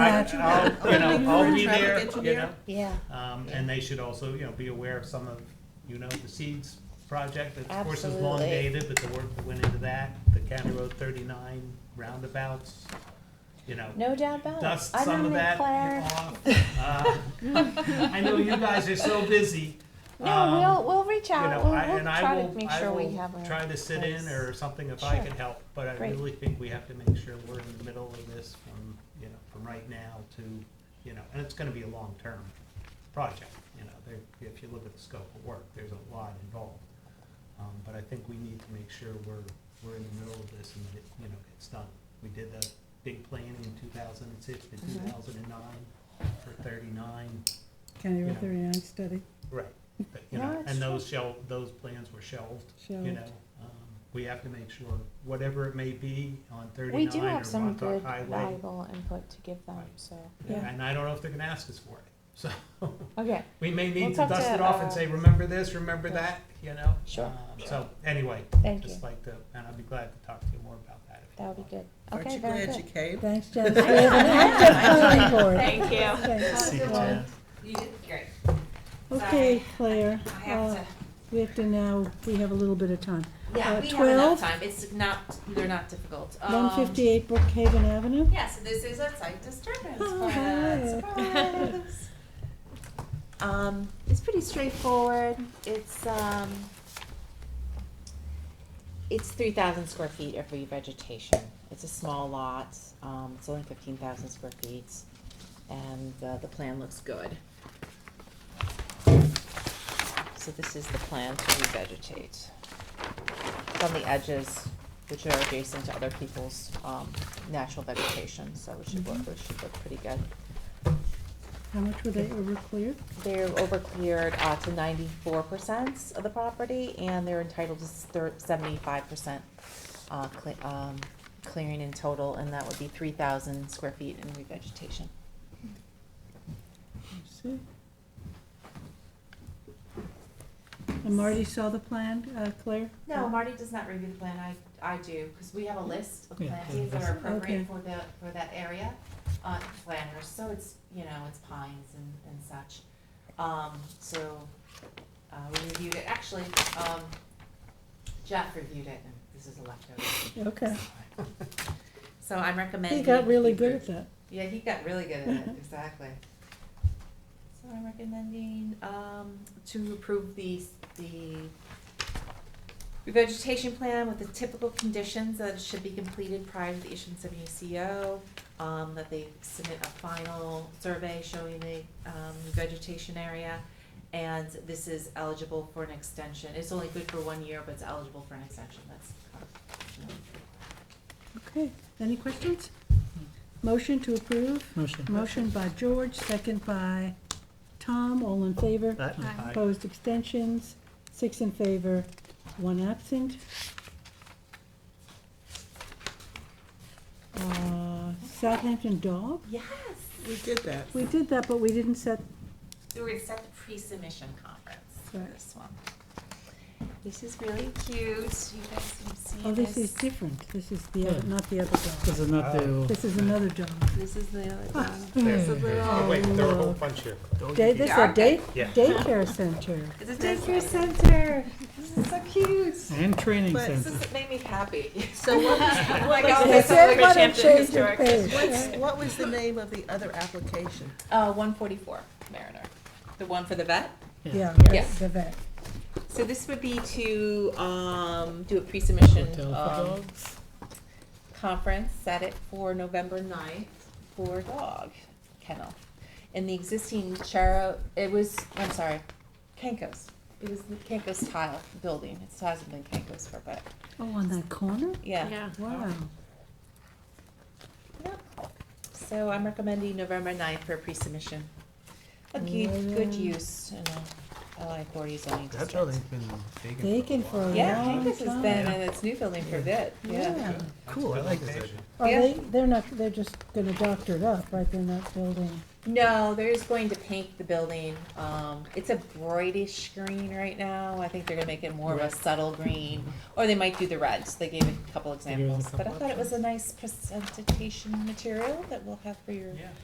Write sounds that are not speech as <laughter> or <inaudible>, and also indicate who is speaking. Speaker 1: got you.
Speaker 2: I'll, you know, I'll be
Speaker 1: Traffic
Speaker 2: there, you know.
Speaker 1: engineer.
Speaker 3: Yeah,
Speaker 2: Um, and they should also, you know, be aware of some of, you know, the seeds project, that of course is long
Speaker 3: Absolutely.
Speaker 2: dated, but the work that went into that, the County Road thirty-nine roundabouts, you know.
Speaker 3: no doubt about it.
Speaker 2: Dust
Speaker 3: I
Speaker 2: some of
Speaker 3: nominate
Speaker 2: that
Speaker 3: Claire.
Speaker 2: off. Uh, <laughs> I know you guys are so busy. um,
Speaker 3: No, we'll, we'll reach
Speaker 2: you know,
Speaker 3: out. We'll,
Speaker 2: I-
Speaker 3: we'll
Speaker 2: and I
Speaker 3: try
Speaker 2: will-
Speaker 3: to make
Speaker 2: I
Speaker 3: sure we
Speaker 2: will
Speaker 3: have a.
Speaker 2: Try to sit in
Speaker 3: place.
Speaker 2: or something if I
Speaker 3: Sure.
Speaker 2: could help, but I
Speaker 3: Great.
Speaker 2: really think we have to make sure we're in the middle of this from, you know, from right now to, you know, and it's gonna be a long-term project, you know, there, if you look at the scope of work, there's a lot involved. Um, but I think we need to make sure we're, we're in the middle of this and that, it, you know, it's done. We did the big planning in two thousand and six to
Speaker 3: Mm-hmm.
Speaker 2: two thousand and nine for thirty-nine,
Speaker 4: County
Speaker 2: Yeah.
Speaker 4: Road thirty-nine study,
Speaker 2: Right, but, you
Speaker 3: No,
Speaker 2: know,
Speaker 3: it's
Speaker 2: and those shel, those plans were shelved, you
Speaker 4: Shelved.
Speaker 2: know. Um, We have to make sure, whatever it may be on
Speaker 3: We
Speaker 2: thirty-nine
Speaker 3: do
Speaker 2: or
Speaker 3: have some
Speaker 2: Montauk
Speaker 3: good
Speaker 2: Highway.
Speaker 3: valuable input to give them,
Speaker 2: Right.
Speaker 3: so,
Speaker 4: Yeah.
Speaker 2: And I don't know if they're gonna ask us for it, <laughs> so
Speaker 3: okay,
Speaker 2: we may
Speaker 3: We'll
Speaker 2: need to
Speaker 3: talk
Speaker 2: dust
Speaker 3: to,
Speaker 2: it off
Speaker 3: uh,
Speaker 2: and say, remember this, remember that, you know?
Speaker 3: Sure.
Speaker 2: Um, So, anyway,
Speaker 3: Thank
Speaker 2: just
Speaker 3: you.
Speaker 2: like to, and I'd be glad to talk to you more about that if you
Speaker 3: that would
Speaker 2: want.
Speaker 3: be good.
Speaker 1: Aren't
Speaker 3: Okay,
Speaker 1: you
Speaker 3: very
Speaker 1: glad you
Speaker 3: good.
Speaker 1: came?
Speaker 4: thanks,
Speaker 5: <laughs>
Speaker 4: Jess, we have an active planning board.
Speaker 5: Thank you.
Speaker 4: Thanks.
Speaker 6: See you, Jen.
Speaker 5: You did great.
Speaker 4: Okay, Claire,
Speaker 5: I have
Speaker 4: uh,
Speaker 5: to.
Speaker 4: we have to now, we have a little bit of time.
Speaker 5: Yeah,
Speaker 4: uh,
Speaker 5: we have
Speaker 4: 12?
Speaker 5: enough time. It's not. They're not difficult.
Speaker 4: One fifty-eight Brookhaven Avenue,
Speaker 5: Um, Yeah, so this is a site disturbance.
Speaker 4: Oh,
Speaker 5: plan.
Speaker 4: hi.
Speaker 7: <laughs>
Speaker 5: Surprise. um, it's pretty straightforward. It's um,
Speaker 7: It's three thousand square feet of revegetation. It's a small lot, um, it's only fifteen thousand square feet, and, uh, the plan looks good. So this is the plan to revegetate. From the edges, which are adjacent to other people's, um, natural vegetation, so it should look, it should look pretty good.
Speaker 4: how much were they over cleared?
Speaker 7: They're over cleared, uh, to ninety-four percent of the property, and they're entitled to seventy-five percent, uh, cle- um, clearing in total, and that would be three thousand square feet in revegetation.
Speaker 4: Let's see. And Marty saw the plan, uh, Claire?
Speaker 7: No, Marty does not review the plan, I, I do, because we have a list of
Speaker 6: Yeah,
Speaker 7: plantings that
Speaker 6: that's-
Speaker 7: are appropriate
Speaker 4: Okay.
Speaker 7: for the, for that area, uh, planters, so it's, you know, it's pines and, and such. Um, so, uh, we reviewed it, actually, um, Jeff reviewed it, and this is a leftover.
Speaker 4: Okay,
Speaker 7: So I'm recommending.
Speaker 4: he got really good at
Speaker 7: approve.
Speaker 4: that.
Speaker 7: Yeah, he got really good at it, exactly. So I'm recommending, um, to approve the, the revegetation plan with the typical conditions that it should be completed prior to the issuance of a new CO. Um, that they submit a final survey showing the, um, vegetation area. And this is eligible for an extension. It's only good for one year, but it's eligible for an extension. That's, um,
Speaker 4: Okay, any questions? Motion to approve,
Speaker 6: Motion.
Speaker 4: motion by George, second by Tom, all in favor?
Speaker 6: Aye.
Speaker 2: Aye.
Speaker 4: Opposed, abstentions, six in favor, one absent. Uh, Southampton Dog,
Speaker 7: yes.
Speaker 1: We did
Speaker 4: <laughs>
Speaker 1: that.
Speaker 4: we did that, but we didn't set,
Speaker 7: So we're gonna set the pre-submission conference for
Speaker 4: Right.
Speaker 7: this one. This is really cute, you guys can
Speaker 4: oh,
Speaker 7: see
Speaker 4: this is
Speaker 7: this.
Speaker 4: different, this is the, other
Speaker 6: Yeah.
Speaker 4: not the other dog,
Speaker 6: This is not the.
Speaker 4: this is another dog.
Speaker 5: this is the other one.
Speaker 2: There's-
Speaker 6: Yeah.
Speaker 2: there's- oh, wait, there are a whole bunch here.
Speaker 4: Day, this is a day,
Speaker 2: Yeah.
Speaker 4: daycare center.
Speaker 7: It's a daycare center. This is so cute.
Speaker 6: And training
Speaker 1: But-
Speaker 7: This
Speaker 6: center.
Speaker 7: is, it made me happy. <laughs>
Speaker 1: So what was,
Speaker 7: Oh my God,
Speaker 4: They
Speaker 7: this is
Speaker 4: said,
Speaker 7: like a
Speaker 4: "Why don't
Speaker 7: Hampton
Speaker 4: change your
Speaker 7: historic.
Speaker 4: page?"
Speaker 1: what's, what was the name of the other application?
Speaker 7: Uh, one forty-four Mariner, the one for the vet.
Speaker 4: Yeah,
Speaker 7: Yeah.
Speaker 4: the vet.
Speaker 7: So this would be to, um, do a pre-submission,
Speaker 6: Hotel for
Speaker 7: um,
Speaker 6: dogs.
Speaker 7: conference, set it for November 9th for dog kennel. And the existing Charo, it was, I'm sorry, Kenko's. It was the Kenko's tile building. It hasn't been Kenko's for, but,
Speaker 4: Oh, on that corner?
Speaker 7: yeah.
Speaker 5: Yeah.
Speaker 4: Wow.
Speaker 7: So I'm recommending November 9th for pre-submission. A
Speaker 6: Mm-hmm.
Speaker 7: good, good use in a LI 40 zoning
Speaker 6: That's
Speaker 7: district.
Speaker 6: how they've been
Speaker 4: Vacant for a while.
Speaker 7: Yeah,
Speaker 4: Long
Speaker 7: Kenko's has
Speaker 4: time.
Speaker 7: been in its new building for a bit, yeah.
Speaker 4: Yeah.
Speaker 6: Cool, I like this
Speaker 2: Location.
Speaker 6: idea.
Speaker 4: Are
Speaker 7: Yeah.
Speaker 4: they, they're not, they're just gonna doctor it up, right, they're not building,
Speaker 7: No, they're just going to paint the building. Um, it's a brightish green right now. I think they're gonna make it more of a subtle green, or they might do the reds. They gave a couple
Speaker 6: gave us a
Speaker 7: examples, but I
Speaker 6: couple
Speaker 7: thought it was a nice presentation material that we'll have for your
Speaker 2: Yeah.